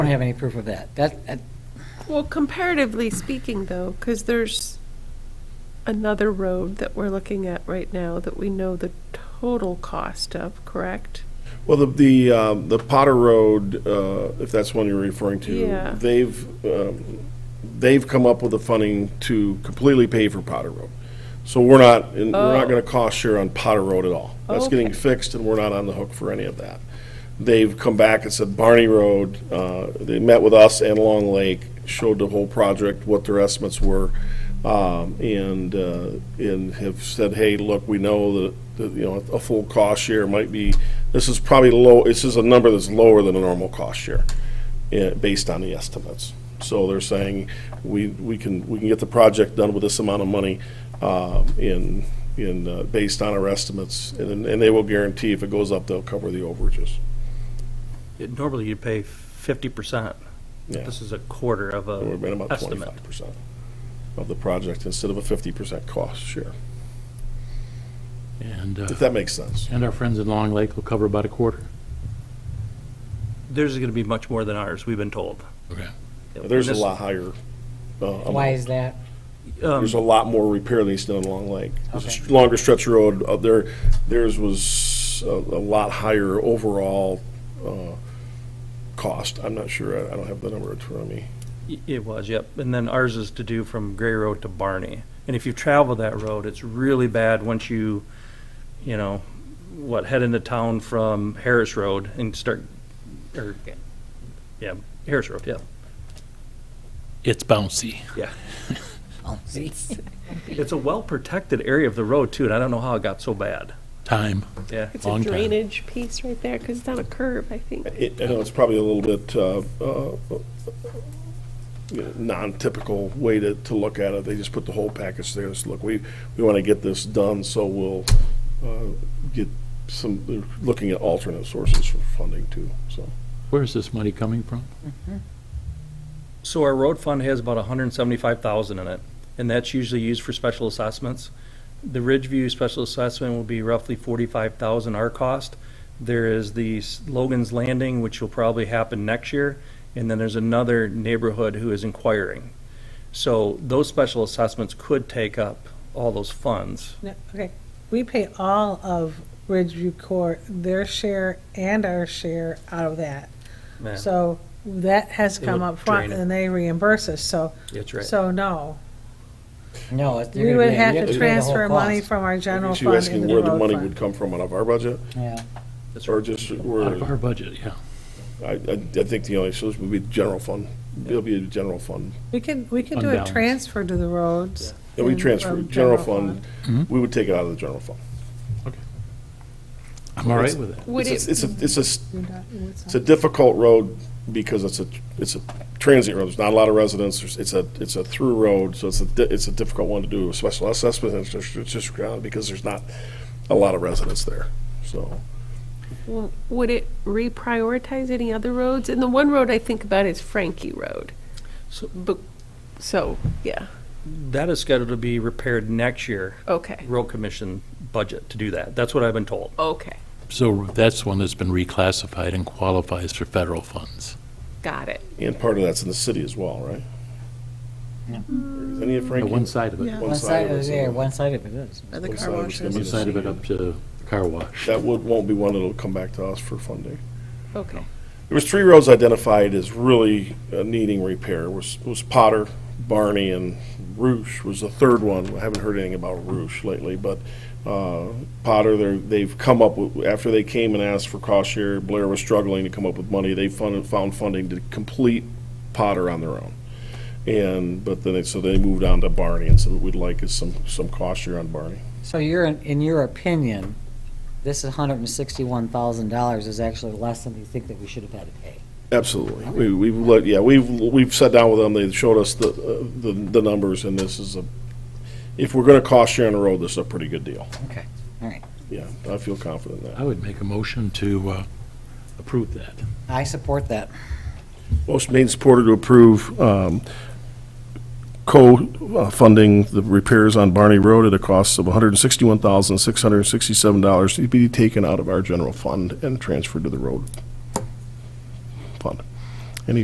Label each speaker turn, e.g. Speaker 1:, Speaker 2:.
Speaker 1: I don't have any proof of that. That, that-
Speaker 2: Well, comparatively speaking, though, because there's another road that we're looking at right now that we know the total cost of, correct?
Speaker 3: Well, the, the, um, the Potter Road, uh, if that's one you're referring
Speaker 2: Yeah.
Speaker 3: to, they've, um, they've come up with the funding to completely pay for Potter Road. So we're not, and we're not
Speaker 2: Oh.
Speaker 3: gonna cost share on Potter Road at all. That's getting
Speaker 2: Okay.
Speaker 3: fixed and we're not on the hook for any of that. They've come back and said Barney Road, uh, they met with us and Long Lake, showed the whole project, what their estimates were. Um, and, uh, and have said, hey, look, we know that, that, you know, a full cost share might be, this is probably low, this is a number that's lower than a normal cost share, eh, based on the estimates. So they're saying, we, we can, we can get the project done with this amount of money, uh, in, in, uh, based on our estimates, and, and they will guarantee if it goes up, they'll cover the overages.
Speaker 4: It- Normally you pay fifty percent.
Speaker 3: Yeah.
Speaker 4: This is a quarter of
Speaker 3: It would have been
Speaker 4: a
Speaker 3: about
Speaker 4: estimate.
Speaker 3: twenty-five percent of the project instead of a fifty percent cost share,
Speaker 5: And, uh,
Speaker 3: if that makes sense.
Speaker 5: and our friends in Long Lake will cover about a quarter.
Speaker 4: Theirs is gonna be much more than ours, we've been told.
Speaker 5: Okay.
Speaker 3: There's a
Speaker 4: This-
Speaker 3: lot higher. uh,
Speaker 1: why is that?
Speaker 4: um,
Speaker 3: There's a lot more repair than he's done in Long Lake. There's a
Speaker 1: Okay.
Speaker 3: str- longer stretch of road up there. Theirs was a, a lot higher overall, uh, cost. I'm not sure. I, I don't have the number in front of me.
Speaker 4: y- It was, yep. And then ours is to do from Gray Road to Barney. And if you travel that road, it's really bad once you, you know, what, head into town from Harris Road and start, or, yeah, Harris Road, yeah,
Speaker 5: It's bouncy.
Speaker 4: yeah.
Speaker 1: Oh, see?
Speaker 4: It's a well-protected area of the road too, and I don't know how it got so bad.
Speaker 5: Time.
Speaker 4: Yeah.
Speaker 2: It's a
Speaker 5: Long time.
Speaker 2: drainage piece right there, because it's on a curve, I think.
Speaker 3: It, I know it's probably a little bit, uh, uh, you know, non-typical way to, to look at it. They just put the whole package there. It's, look, we, we want to get this done, so we'll, uh, get some, they're looking at alternate sources for funding too, so.
Speaker 5: Where is this money coming from?
Speaker 4: So our road fund has about hundred and seventy-five thousand in it, and that's usually used for special assessments. The Ridgeview special assessment will be roughly forty-five thousand our cost. There is the S- Logan's Landing, which will probably happen next year, and then there's another neighborhood who is inquiring. So those special assessments could take up all those funds.
Speaker 6: No, Okay, we pay all of Ridgeview Court, their share and our share out of that.
Speaker 4: Yeah,
Speaker 6: So that has
Speaker 4: It
Speaker 6: come
Speaker 4: would
Speaker 6: up front
Speaker 4: drain it.
Speaker 6: and they reimburse us, so,
Speaker 4: That's right.
Speaker 6: so no.
Speaker 1: No. it's-
Speaker 6: We would have
Speaker 1: you're
Speaker 6: to
Speaker 1: gonna pay the whole
Speaker 6: transfer money
Speaker 1: cost.
Speaker 6: from our general
Speaker 3: She's
Speaker 6: fund
Speaker 3: asking
Speaker 6: into
Speaker 3: where
Speaker 6: the
Speaker 3: the
Speaker 6: road
Speaker 3: money would come
Speaker 6: fund.
Speaker 3: from out of our budget,
Speaker 1: Yeah.
Speaker 4: That's
Speaker 3: or
Speaker 4: right.
Speaker 3: just
Speaker 5: Out of
Speaker 3: where,
Speaker 5: our budget, yeah.
Speaker 3: I, I I think the only solution would be general fund. It'll be a general fund.
Speaker 6: We can, we can
Speaker 5: Fund
Speaker 6: do a
Speaker 5: balance.
Speaker 6: transfer to the roads.
Speaker 3: And we
Speaker 6: and
Speaker 3: transfer,
Speaker 6: from
Speaker 3: general fund,
Speaker 5: Mhm.
Speaker 3: we would take it out of the general fund.
Speaker 5: I'm all right with it.
Speaker 2: Would
Speaker 3: It's
Speaker 2: it,
Speaker 3: a- It's a, it's a s-
Speaker 6: You're not- what's
Speaker 3: It's a
Speaker 6: that?
Speaker 3: difficult road because it's a, it's a transient road, there's not a lot of residents, There's- it's a, it's a through road, so it's a, di- it's a difficult one to do, a special assessment, it's just, it's just ground, because there's not a lot of residents there, so.
Speaker 2: w- would it reprioritize any other roads? And the one road I think about is Frankie Road.
Speaker 4: So-
Speaker 2: Bu- So, yeah,
Speaker 4: That is scheduled to be repaired next year,
Speaker 2: okay,
Speaker 4: road commission budget to do that. That's what I've been told.
Speaker 2: okay,
Speaker 5: So that's one that's been reclassified and qualifies for federal funds.
Speaker 2: got it.
Speaker 3: And part of that's in the city as well, right? Is Any of
Speaker 5: Uh,
Speaker 3: Frankie?
Speaker 5: One side of it.
Speaker 3: One
Speaker 1: One side of
Speaker 3: it's
Speaker 1: it,
Speaker 3: in
Speaker 1: yeah,
Speaker 3: the-
Speaker 1: one side of it is.
Speaker 6: Are the
Speaker 3: one side of it's
Speaker 6: car
Speaker 3: gonna
Speaker 6: washes?
Speaker 3: be
Speaker 5: One
Speaker 3: the
Speaker 5: side of it
Speaker 3: city.
Speaker 5: up to the car wash.
Speaker 3: That would, won't be one that'll come back to us for funding.
Speaker 2: Okay,
Speaker 3: There was three roads identified as really uh, needing repair, was, was Potter, Barney, and Roosh was the third one. I haven't heard anything about Roosh lately, but, uh, Potter, they're, they've come up, with- after they came and asked for cost share, Blair was struggling to come up with money, they funded, found funding to complete Potter on their own. And, but then, they- so they moved on to Barney, and so what we'd like is some, some cost share on Barney.
Speaker 1: So you're, in in your opinion, this $161,000 is actually less than you think that we should have had to pay.
Speaker 3: Absolutely. We, we've, let- yeah, we've, we've sat down with them, they showed us the, uh, the, the numbers, and this is a, if we're gonna cost share on the road, this is a pretty good deal.
Speaker 1: Okay, all right.
Speaker 3: Yeah, I feel confident in that.
Speaker 5: I would make a motion to uh, approve that.
Speaker 1: I support that.
Speaker 3: Motion made and supported to approve, um, co-funding the repairs on Barney Road at a cost of hundred and sixty-one thousand, six hundred and sixty-seven dollars to be taken out of our general fund and transferred to the road fund.